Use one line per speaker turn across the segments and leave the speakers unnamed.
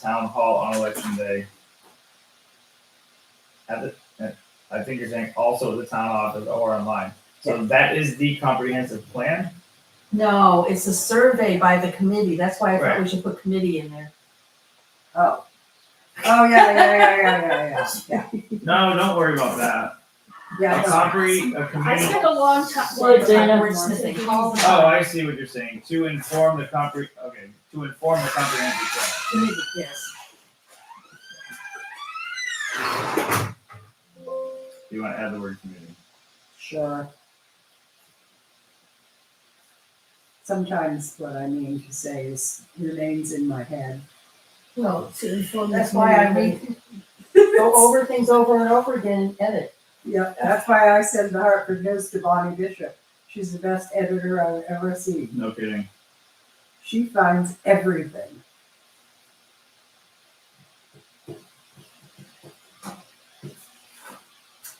town hall on election day. At the, at- I think you're saying also the town office or online. So that is the comprehensive plan.
No, it's a survey by the committee. That's why I thought we should put committee in there.
Oh. Oh, yeah, yeah, yeah, yeah, yeah, yeah, yeah,
No, don't worry about that.
yeah.
A
no.
compre, a
I
committee.
spent a long time,
Well,
word
Dana-
wordsmithing all the
Oh,
time.
I see what you're saying. To inform the compre, okay, to inform the comprehensive plan.
Committee, yes.
You want to add the word committee?
Sure. Sometimes what I mean to say is remains in my head.
Well, to inform the
That's why I
community.
read, go over things over and over again and edit.
Yeah, that's why I send the Hartford News to Bonnie Bishop. She's the best editor I've ever seen.
No kidding.
She finds everything.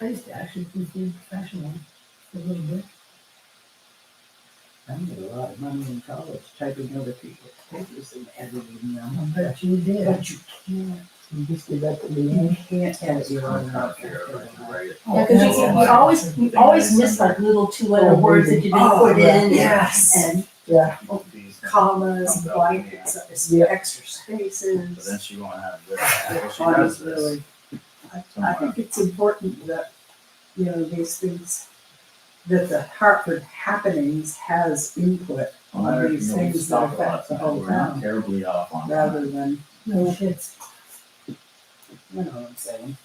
I used to actually be professional for a little bit.
I made a lot of money in college typing other people's papers and editing them.
But you did.
But you can't,
You just did that to me.
you can't edit your own
Right.
Yeah, cause you,
Oh,
you always, you always miss like little two letter
Oh,
words that you didn't put
Oh,
in.
Yes,
And
Yeah,
These-
commas, blankets,
Yeah.
extra
But then
spaces.
she won't have this.
Yeah,
Well, she
mine
does
is
this.
really, I, I think it's important that, you know, these things, that the Hartford happenings has input
Well, I don't
these
know, we
things
stop
that
a lot
affect the
of
whole
times. We're not
town.
Terribly off on. that.
rather than,
No shits.
you know what I'm saying,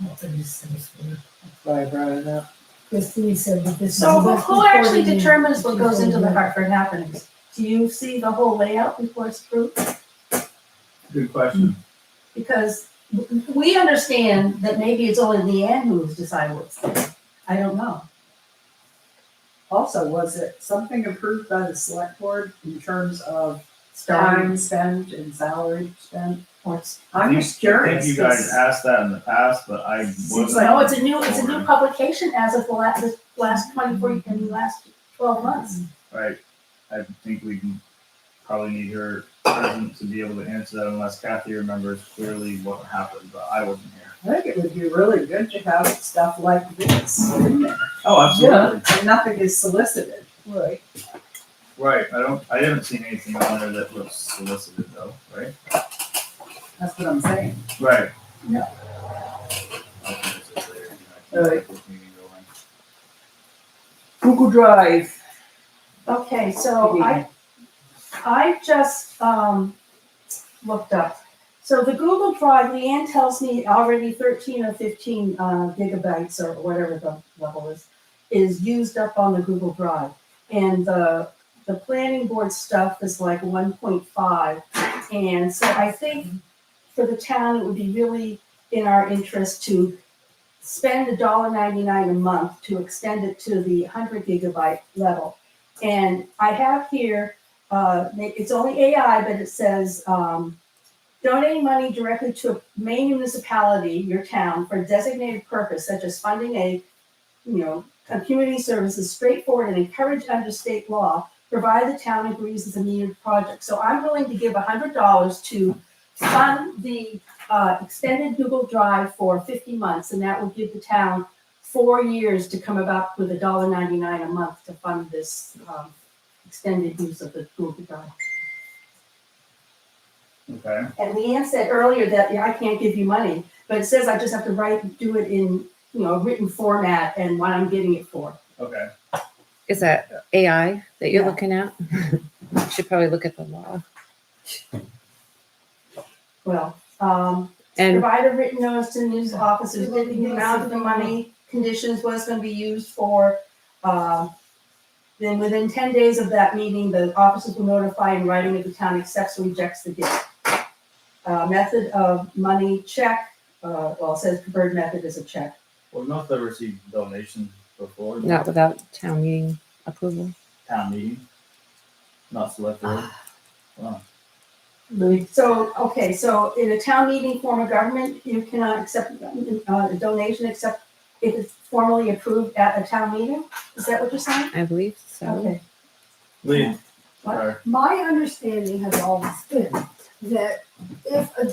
What the distance were.
that's why I brought it up.
Christine said that this is.
So who,
much
who
before
actually
the-
determines what goes into the Hartford happenings? Do you see the whole layout before it's approved?
Good question.
Because w- we understand that maybe it's only Leanne who's deciding what's there. I don't know.
Also, was it something approved by the select board in terms of
Starting
time spent and salary spent?
reports.
I'm
You-
just
Um, I
curious.
think you guys
'cause-
asked that in the past, but I
Seems
wasn't.
like- oh,
No, it's a new, it's a new publication as of the last, the last twenty-four, and the last twelve months.
Right, I think we can probably need her present to be able to answer that unless Kathy remembers clearly what happened, but I wasn't here.
I think it would be really good to have stuff like this in there.
Oh, absolutely.
And nothing is solicited.
right.
Right, I don't, I haven't seen anything on there that looks solicited though, right?
That's what I'm saying.
Right.
No.
Alright. Google Drive.
Okay,
Oh,
so I, I just, um, looked up. So the Google Drive, Leanne tells me already thirteen or fifteen, uh, gigabytes or whatever the level is, is used up on the Google Drive. And the, the planning board stuff is like one point five. And so I think for the town, it would be really in our interest to spend a dollar ninety-nine a month to extend it to the hundred gigabyte level. And I have here, uh, it's only AI, but it says, um, donating money directly to a main municipality, your town, for a designated purpose such as funding a, you know, a community service is straightforward and encouraged under state law, provided the town agrees is a needed project. So I'm willing to give hundred dollars to fund the, uh, extended Google Drive for fifty months, and that will give the town four years to come about with a dollar ninety-nine a month to fund this, um, extended use of the Google Drive.
Okay,
And Leanne said earlier that, yeah, I can't give you money, but it says I just have to write, do it in, you know, written format and what I'm getting it for.
okay.
Is that AI that you're
Yeah.
looking at? Should probably look at the law.
Well, um,
And
provide a written notice to news officers, that the amount of the money, conditions, what it's gonna be used for. Um, Then within ten days of that meeting, the officers will notify in writing if the town accepts or rejects the gift. Uh, method of money check, uh, well, it says preferred method is a check.
Well, not that I received donations before. but
not without town meeting approval.
Town meeting. Not select board.
So, okay, so in a town meeting form of government, you cannot accept uh, a donation except if it's formally approved at a town meeting? Is that what you're saying?
I believe so.
Okay,
Lee,
What?
sorry.
My understanding has always been that if a